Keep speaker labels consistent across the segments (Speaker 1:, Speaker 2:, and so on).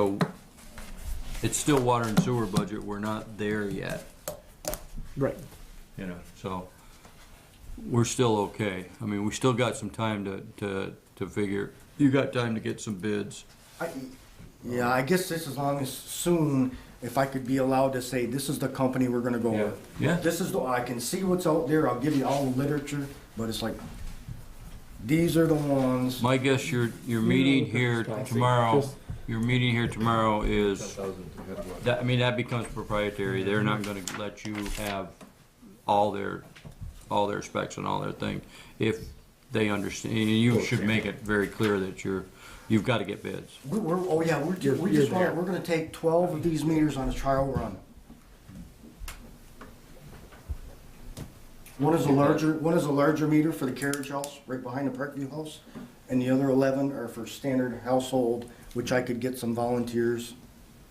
Speaker 1: So, it's still water and sewer budget, we're not there yet,
Speaker 2: Right.
Speaker 1: you know, so we're still okay. I mean, we still got some time to, to, to figure, you got time to get some bids.
Speaker 3: I- Yeah, I guess this as long as soon, if I could be allowed to say, this is the company we're gonna go with.
Speaker 1: Yeah. Yeah.
Speaker 3: This is the, I can see what's out there, I'll give you all the literature, but it's like, these are the ones.
Speaker 1: My guess, your, your meeting here tomorrow, your meeting here tomorrow is, that, I mean, that becomes proprietary. They're not gonna let you have all their, all their specs and all their things if they understand, and you should make it very clear that you're, you've gotta get bids.
Speaker 3: We- We're, oh yeah, we're, ju- we just want, we're gonna take twelve of these meters on a trial run. One is a larger, one is a larger meter for the carriage house, right behind the Parkview house, and the other eleven are for standard household, which I could get some volunteers,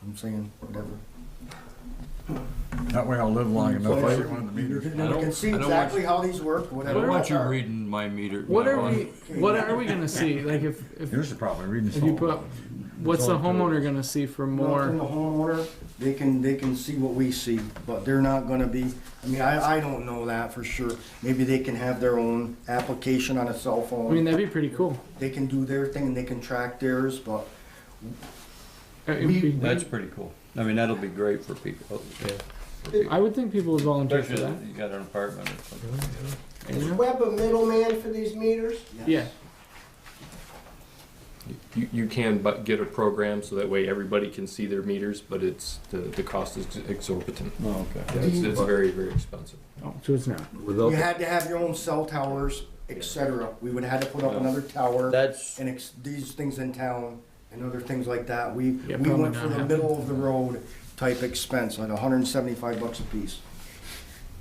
Speaker 3: I'm saying, whatever.
Speaker 4: That way I'll live
Speaker 2: Mm,
Speaker 4: long enough, I get one of the meters.
Speaker 3: And we can see
Speaker 1: I don't want-
Speaker 3: exactly how these work,
Speaker 1: I
Speaker 3: whatever.
Speaker 1: don't want you
Speaker 3: they are.
Speaker 1: reading my meter.
Speaker 2: What
Speaker 1: my
Speaker 2: are
Speaker 1: lawn.
Speaker 2: we? What are we gonna see? Like if if,
Speaker 4: Here's the problem, I'm reading
Speaker 2: if you
Speaker 4: something.
Speaker 2: put, up- what's the homeowner gonna see for
Speaker 3: Well, From
Speaker 2: more?
Speaker 3: the homeowner, they can, they can see what we see, but they're not gonna be, I mean, I, I don't know that for sure. Maybe they can have their own application on a cell
Speaker 2: I mean,
Speaker 3: phone.
Speaker 2: that'd be pretty cool.
Speaker 3: They can do their thing and they can track theirs, but
Speaker 2: It'd
Speaker 3: We-
Speaker 2: be-
Speaker 1: That's pretty cool. I mean, that'll be great for people.
Speaker 2: I would think people would volunteer for
Speaker 1: Especially
Speaker 2: that.
Speaker 1: if you got an apartment or something.
Speaker 2: you
Speaker 5: Is
Speaker 2: know?
Speaker 5: Webb a middleman for these meters?
Speaker 2: Yeah.
Speaker 6: You, you can but get a program so that way everybody can see their meters, but it's, the, the cost is exorbitant.
Speaker 1: Oh, okay.
Speaker 6: It's, it's very, very expensive.
Speaker 2: Oh, so it's not.
Speaker 3: you had to have your own cell towers, et cetera. We would have had to put up another tower
Speaker 1: That's,
Speaker 3: and ex- these things in town and other things like that. We,
Speaker 2: Yeah,
Speaker 3: we
Speaker 2: probably
Speaker 3: went for
Speaker 2: not
Speaker 3: the
Speaker 2: happening.
Speaker 3: middle of the road type expense, like hundred and seventy-five bucks a piece.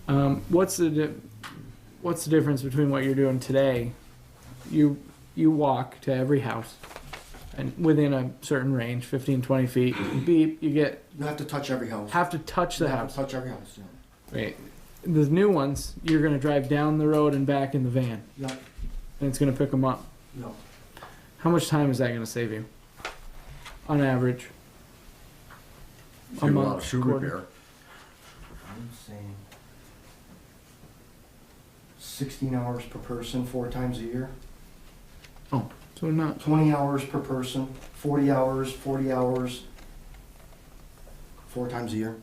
Speaker 2: Um, what's the di- what's the difference between what you're doing today? You you walk to every house, and within a certain range, 15, 20 feet, beep, you get
Speaker 3: You have to touch every house.
Speaker 2: have to touch
Speaker 3: You
Speaker 2: the
Speaker 3: have to
Speaker 2: house.
Speaker 3: Touch every house, yeah.
Speaker 2: Right. The new ones, you're gonna drive down the road and back in the van,
Speaker 3: Yeah,
Speaker 2: and it's gonna pick them up.
Speaker 3: no.
Speaker 2: How much time is that gonna save you? On average.
Speaker 4: Do a lot of shoe
Speaker 2: quarter?
Speaker 4: repair.
Speaker 3: I'm saying sixteen hours per person, four times a year.
Speaker 2: So not.
Speaker 3: Twenty hours per person, forty hours, forty hours, four times a year.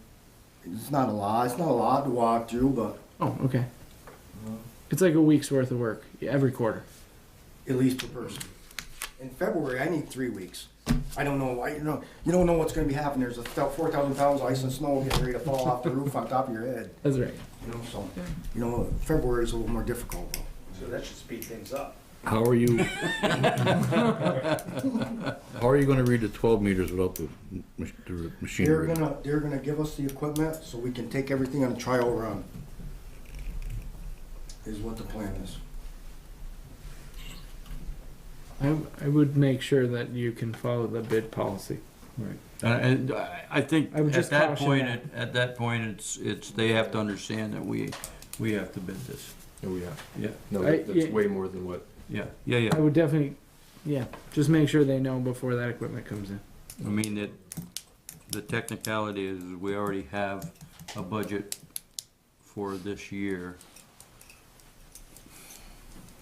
Speaker 3: It's not a lot. It's not a lot to walk through, but
Speaker 2: Oh, okay.
Speaker 1: Mm-hmm.
Speaker 3: No.
Speaker 2: It's like a week's worth of work yeah, every quarter.
Speaker 3: at least per person. In February, I need three weeks. I don't know. I you know you don't know what's going to be happening. There's a four thousand pounds of ice and snow getting ready to fall off the roof on top of your head.
Speaker 2: That's right.
Speaker 3: You know, so you know February is a little more difficult. Though.
Speaker 7: So that should speed things up.
Speaker 8: How are you? How are you gonna read the twelve meters without the, mach- the machine
Speaker 3: They're
Speaker 8: reading?
Speaker 3: gonna, they're gonna give us the equipment so we can take everything on a trial run. Is what the plan is.
Speaker 2: I, I would make sure that you can follow the bid policy.
Speaker 1: Uh, and and I I think
Speaker 2: I would
Speaker 1: at
Speaker 2: just
Speaker 1: that
Speaker 2: caution
Speaker 1: point,
Speaker 2: that.
Speaker 1: it- at that point, it's, it's, they have to understand that we, we have to bid this.
Speaker 6: Oh, yeah.
Speaker 1: Yeah,
Speaker 6: No,
Speaker 2: I-
Speaker 6: that- that's
Speaker 2: yeah.
Speaker 6: way more than what,
Speaker 1: yeah, yeah,
Speaker 2: I
Speaker 1: yeah.
Speaker 2: would definitely, yeah, just make sure they know before that equipment comes in.
Speaker 1: I mean, that, the technicality is we already have a budget for this year.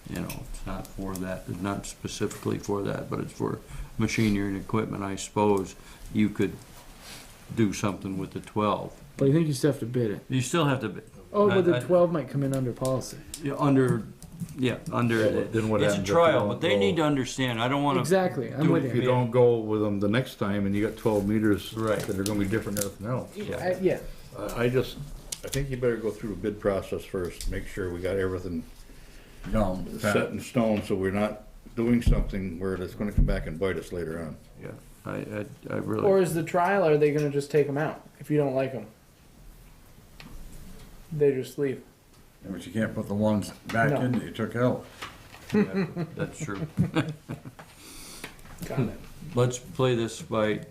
Speaker 1: You know, it's not for that, it's not specifically for that, but it's for machinery and equipment, I suppose. You could do something with the twelve.
Speaker 2: But I think you still have to bid it.
Speaker 1: You still have to, be-
Speaker 2: Oh, but
Speaker 1: I-
Speaker 2: the
Speaker 1: I-
Speaker 2: twelve might come in under policy.
Speaker 1: Yeah, under, yeah, under,
Speaker 8: Yeah, but then what
Speaker 1: it's a
Speaker 8: happens if you
Speaker 1: trial,
Speaker 8: don't
Speaker 1: but they
Speaker 8: go?
Speaker 1: need to understand, I don't wanna,
Speaker 2: Exactly, I'm
Speaker 1: do
Speaker 2: with
Speaker 8: If you
Speaker 2: you.
Speaker 8: don't go with them the next time and you got twelve meters
Speaker 1: Right.
Speaker 8: that are gonna be different than everything else.
Speaker 1: yeah,
Speaker 2: I- Yeah,
Speaker 8: I, I just, I think you better go through the bid process first, make sure we got everything
Speaker 4: Down,
Speaker 8: set
Speaker 4: Pat.
Speaker 8: in stone, so we're not doing something where it's gonna come back and bite us later on.
Speaker 1: yeah, I, I, I really.
Speaker 2: or is the trial, are they gonna just take them out if you don't like them? They just leave.
Speaker 4: but you can't put the ones back
Speaker 2: No.
Speaker 4: in that you took out.
Speaker 1: That's true.
Speaker 2: Got it.
Speaker 1: Let's play this by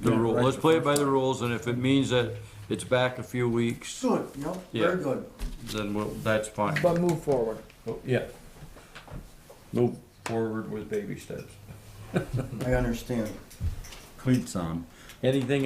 Speaker 1: the
Speaker 4: Yeah,
Speaker 1: rule,
Speaker 4: right,
Speaker 1: let's
Speaker 4: the
Speaker 1: play it
Speaker 4: first
Speaker 1: by the rules, and if it means that it's back a few weeks,
Speaker 3: Good, yep,
Speaker 1: Yeah.
Speaker 3: very good.
Speaker 1: then we'll, that's fine.
Speaker 2: But move forward.
Speaker 1: Well, Yeah. Move forward with baby steps.
Speaker 3: I understand.
Speaker 4: Cleats on.
Speaker 1: Anything